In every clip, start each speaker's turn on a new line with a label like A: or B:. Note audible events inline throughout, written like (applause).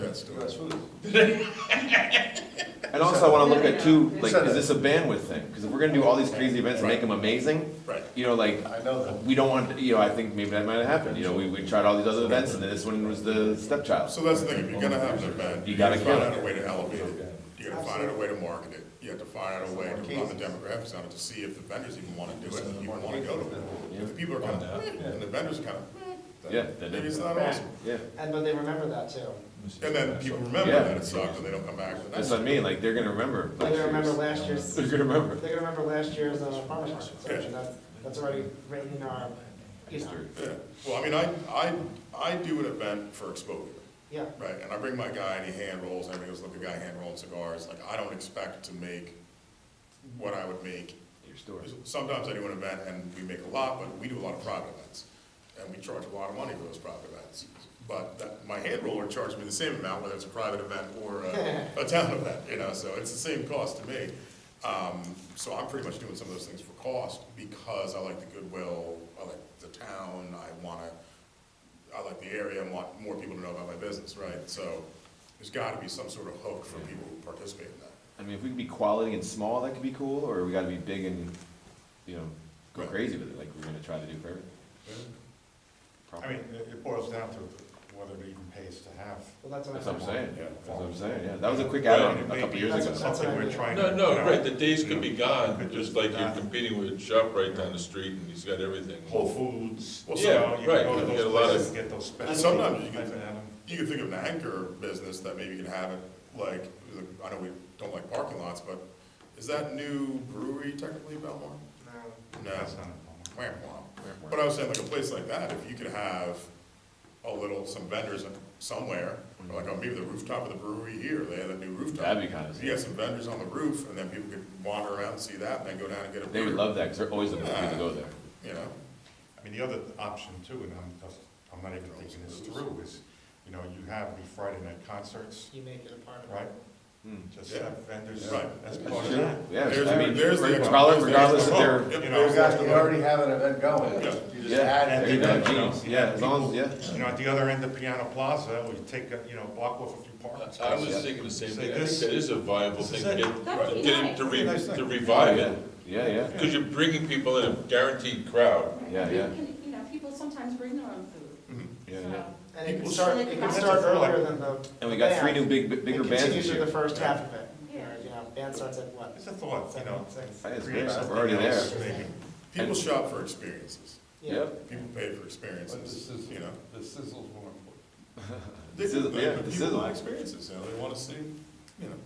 A: that story.
B: That's food.
C: And also, I wanna look at too, like, is this a bandwidth thing? Because if we're gonna do all these crazy events and make them amazing,
A: Right.
C: you know, like,
B: I know that.
C: we don't want, you know, I think maybe that might have happened, you know, we, we tried all these other events, and then this one was the stepchild.
A: So that's the thing, if you're gonna have an event,
C: You
A: you
C: gotta
A: gotta find
C: kill
A: out
C: it.
A: a way to elevate it. You gotta find out a way to market it. You have to find out a way to run the demographics on it to see if the vendors even wanna do it, and even wanna go to it. If the people are kind of, and the vendors kind of,
C: Yeah.
A: maybe it's not awesome.
C: Yeah,
D: And, but they remember that too.
A: And then people remember
C: Yeah.
A: that it sucked and they don't come back. the
C: that's
A: next
C: what I
A: year.
C: mean, like, they're gonna remember.
D: They're gonna remember
C: year's-
D: last
C: (laughs)
D: year's,
C: They're gonna remember.
D: they're gonna remember last year's uh, farmer's market. So
A: Yeah.
D: that's, that's already written in our, you know,
A: Yeah, well, I mean, I, I, I do an event for exposure,
D: yeah.
A: right? And I bring my guy and he hand rolls, and everybody goes, look, the guy hand rolling cigars. Like, I don't expect to make what I would make
C: Your story.
A: Sometimes I do an event and we make a lot, but we do a lot of private events. And we charge a lot of money for those private events. But that, my hand roller charges me the same amount, whether it's a private event or a, a town event, you know, so it's the same cost to me. Um, so I'm pretty much doing some of those things for cost because I like the goodwill, I like the town, I wanna, I like the area and want more people to know about my business, right? So there's gotta be some sort of hook for people who participate in that.
C: I mean, if we could be quality and small, that could be cool, or we gotta be big and, you know, go
A: Right.
C: crazy with it, like we're gonna try to do for everything.
E: I mean, it it boils down to whether it even pays to have.
D: Well, that's what I'm.
C: That's what I'm saying,
A: Yeah.
C: that's what I'm saying, yeah, that was a quick
E: Right,
C: add-on
E: it
C: a
E: may
C: couple
E: be
C: years
D: That's-
C: ago.
D: that's-
E: Something
D: what I
E: we're
D: mean.
E: trying to.
F: No, no,
E: you know,
F: right, the days could be gone,
E: Could
F: just
E: just
F: like
E: be
F: you're
E: gone.
F: competing with a shop right down the street and he's got everything.
E: Whole Foods.
F: Well,
E: you
F: yeah,
E: know, you can
F: right,
E: Go to
F: you get a
E: those
F: lot of-
E: places, get those special.
A: And sometimes you can-
E: type of animal.
A: You can think of an anchor business that maybe you can have it, like, I know we don't like parking lots, but is that new brewery technically Belmar?
D: No.
A: No.
E: That's not a problem.
A: Wham, wham. But I was saying, like, a place like that, if you could have a little, some vendors somewhere, or like, oh, maybe the rooftop of the brewery here, they had a new rooftop.
C: That'd be kinda
A: If You got some vendors on the roof, and then people could wander around and see that, and then go down and get a beer.
C: They would love that, because they're always looking for people to go there.
A: You know?
E: I mean, the other option too, and I'm, just- I'm not even thinking this through, is, you know, you have the Friday night concerts,
D: You make it a part of it.
E: right?
C: Hmm.
E: Just
A: Yeah.
E: have vendors
A: Right.
E: as part of
C: Sure.
E: that.
C: Yeah,
A: There's
C: I
A: the-
C: mean,
A: there's the-
C: regardless, regardless if they're,
A: Yep,
E: You know,
B: You
A: there's
B: got, you already have an event going,
A: Yeah.
B: you just
C: yeah,
B: add
C: there you
B: it.
C: go,
E: that, you
C: genius,
E: know,
C: yeah, as long as,
E: people-
C: yeah.
E: You know, at the other end of Piano Plaza, or you take, a you know, block off a few parking spaces.
F: I was thinking the same
E: Say
F: thing, I think
E: this-
F: that is a viable
E: this
F: thing
E: is
F: to
E: it.
F: get,
G: That'd
F: to
G: be nice.
F: get- to
E: That'd be a nice
F: re-
E: thing.
F: to revive
C: Yeah,
F: it.
C: yeah, yeah.
F: Because you're bringing people in, a guaranteed crowd.
C: Yeah, yeah.
G: You can- You know, people sometimes bring their own food.
C: Yeah,
G: so-
C: yeah.
D: And it can
A: People-
D: start, it can
G: That's
D: start
E: a thought.
D: earlier than the.
C: And we got three new
D: band.
C: big, big- bigger bands
D: It
C: this
D: continues with
C: year.
D: the first half of it.
G: Yeah.
D: You know, band starts at what?
E: It's a thought, you know.
D: Seven, six.
C: That is
E: create
C: great, so
E: something
C: we're already
E: else,
C: there.
E: maybe.
A: People shop for experiences,
D: Yeah.
C: Yep.
A: people pay for
B: But this
A: experiences,
B: is-
A: you know?
B: The sizzle's more important.
A: (laughs) They
C: Sizzle,
A: they-
C: yeah,
A: the
C: the
A: People
C: sizzle.
A: want experiences, you know, they wanna see, you know,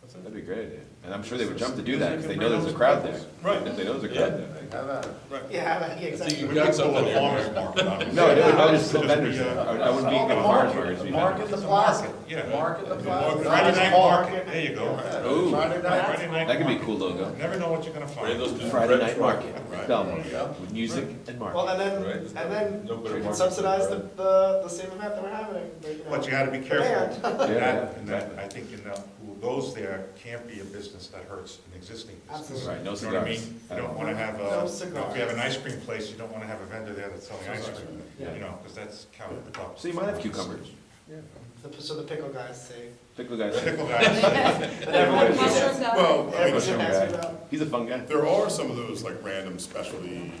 A: that's
C: That'd
A: it.
C: be great, yeah. And I'm sure they would jump to do that, because they
E: Because
C: know
E: they
C: there's
E: can
C: a
E: bring
C: crowd
E: all
C: there.
E: those
A: Right.
C: They know there's a
F: Yeah.
C: crowd there.
B: Have at it.
A: Right.
D: Yeah, (laughs) yeah,
F: I think
D: exactly.
F: you
E: We
F: got
E: could pull
F: something
E: a
F: there.
E: farmer's market out of it.
C: No, I don't- I would just
E: It'd
C: put vendors Uh,
E: be a-
C: there. I would- I wouldn't be
B: Call
C: even
B: the
C: a farmer's
B: market.
C: market, it'd be
B: Market
C: vendors.
B: the plaza,
E: Yeah.
B: market the plaza.
E: uh, Friday night market, there you go.
C: Ooh.
B: Friday night.
E: Friday night
C: That could be a
E: market.
C: cool logo.
E: Never know what you're gonna
F: Bring those
E: find.
F: to
C: Friday
F: Red
C: Night
F: Truck.
C: Market,
A: Right.
B: Yeah.
C: Belmont, with music and
D: Well,
C: market.
D: and then,
F: Right.
D: and then
F: No better
D: we can
F: market
D: subsidize the,
F: than
D: the, the same event that we're having. you know.
E: But you gotta be careful.
C: Yeah,
E: in
C: yeah,
E: that, in that,
C: exactly.
E: I think in that, who goes there can't be a business that hurts an existing business.
D: Absolutely.
C: Right, no
E: You know what I
C: cigars.
E: mean? You don't wanna have
D: No
E: a, if you have
D: cigars.
E: an ice cream place, you don't wanna have a vendor there that's selling ice cream,
C: Yeah.
E: you know, because that's counterproductive.
C: So you might have cucumbers.
D: The- So the pickle guys
C: (laughs)
D: say.
C: Pickle guy's
E: Pickle guys,
D: And everyone-
G: Mushroom guy.
A: Well, I mean,
D: everyone
C: Mushroom
D: asks me
C: guy.
D: about-
C: He's a fun guy.
A: There are some of those like random specialty,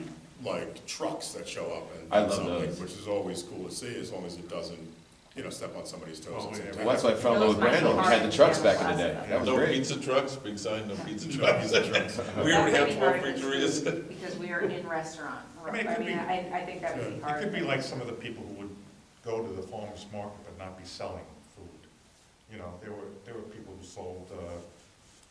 A: like trucks that show up and.
C: I love
A: something,
C: those.
A: Which is always cool to see, as long as it doesn't, you know, step on somebody's toes.
B: Oh,
E: Well,
A: at the
E: yeah,
A: same
C: Well,
A: time.
C: that's why I fell in love with Randall, he had the trucks back in the day. That was
F: No
C: great.
F: pizza trucks, big sign, no
E: (laughs)
F: pizza
A: No
F: trucks.
A: pizza trucks.
F: We
G: That
F: already
G: would
F: have
G: be
F: four
G: hard to
F: pizzerias.
G: do, Because we are in restaurant.
E: I mean, it could
G: I mean,
E: be-
G: I, I think that would be
E: it
G: hard.
E: could be like some of the people who would go to the farmer's market but not be selling food. You know, there were, there were people who sold, uh, I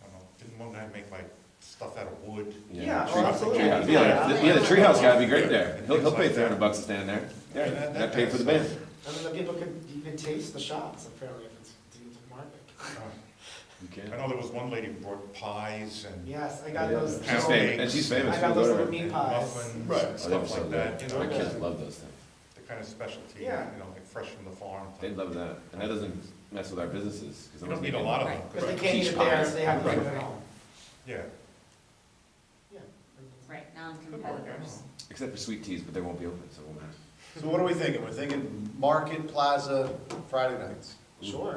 E: don't know, didn't one guy make like stuff out of wood?
D: Yeah,
C: Treehouse-
D: oh, absolutely.
C: treehouse. Yeah, the- yeah, the treehouse guy would be great there. He'll, he'll pay
E: Things like that.
C: three hundred bucks to stand there. Yeah,
E: And that-
C: and
E: that
C: that paid for the
E: kinda
C: band.
D: And then the people could even taste the shots apparently if it's deemed to market.
C: You
E: I
C: can.
E: know there was one lady who brought pies and
D: Yes, I got those.
E: Yeah.
C: She's famous, and she's famous.
D: I got
C: We'll go
D: those
C: to
D: little
C: her.
D: meat pies.
E: muffins
A: Right.
E: and stuff like that, you know,
C: My kids
E: the
C: love those things.
E: kind of specialty, you
D: Yeah.
E: know, like fresh from the farm.
C: They
E: type.
C: love that. And that doesn't mess with our businesses. 'cause
E: You
C: otherwise
E: don't
C: we
E: need a
C: can-
E: lot of them,
G: Right.
D: Because they
E: 'cause-
D: can't eat it there, so they have to
E: Right.
D: eat it at home.
E: yeah.
D: Yeah.
G: Right, non-competitors.
C: Except for sweet teas, but they won't be open, so it won't matter.
B: So what are we thinking? We're thinking market plaza Friday nights.
D: Sure.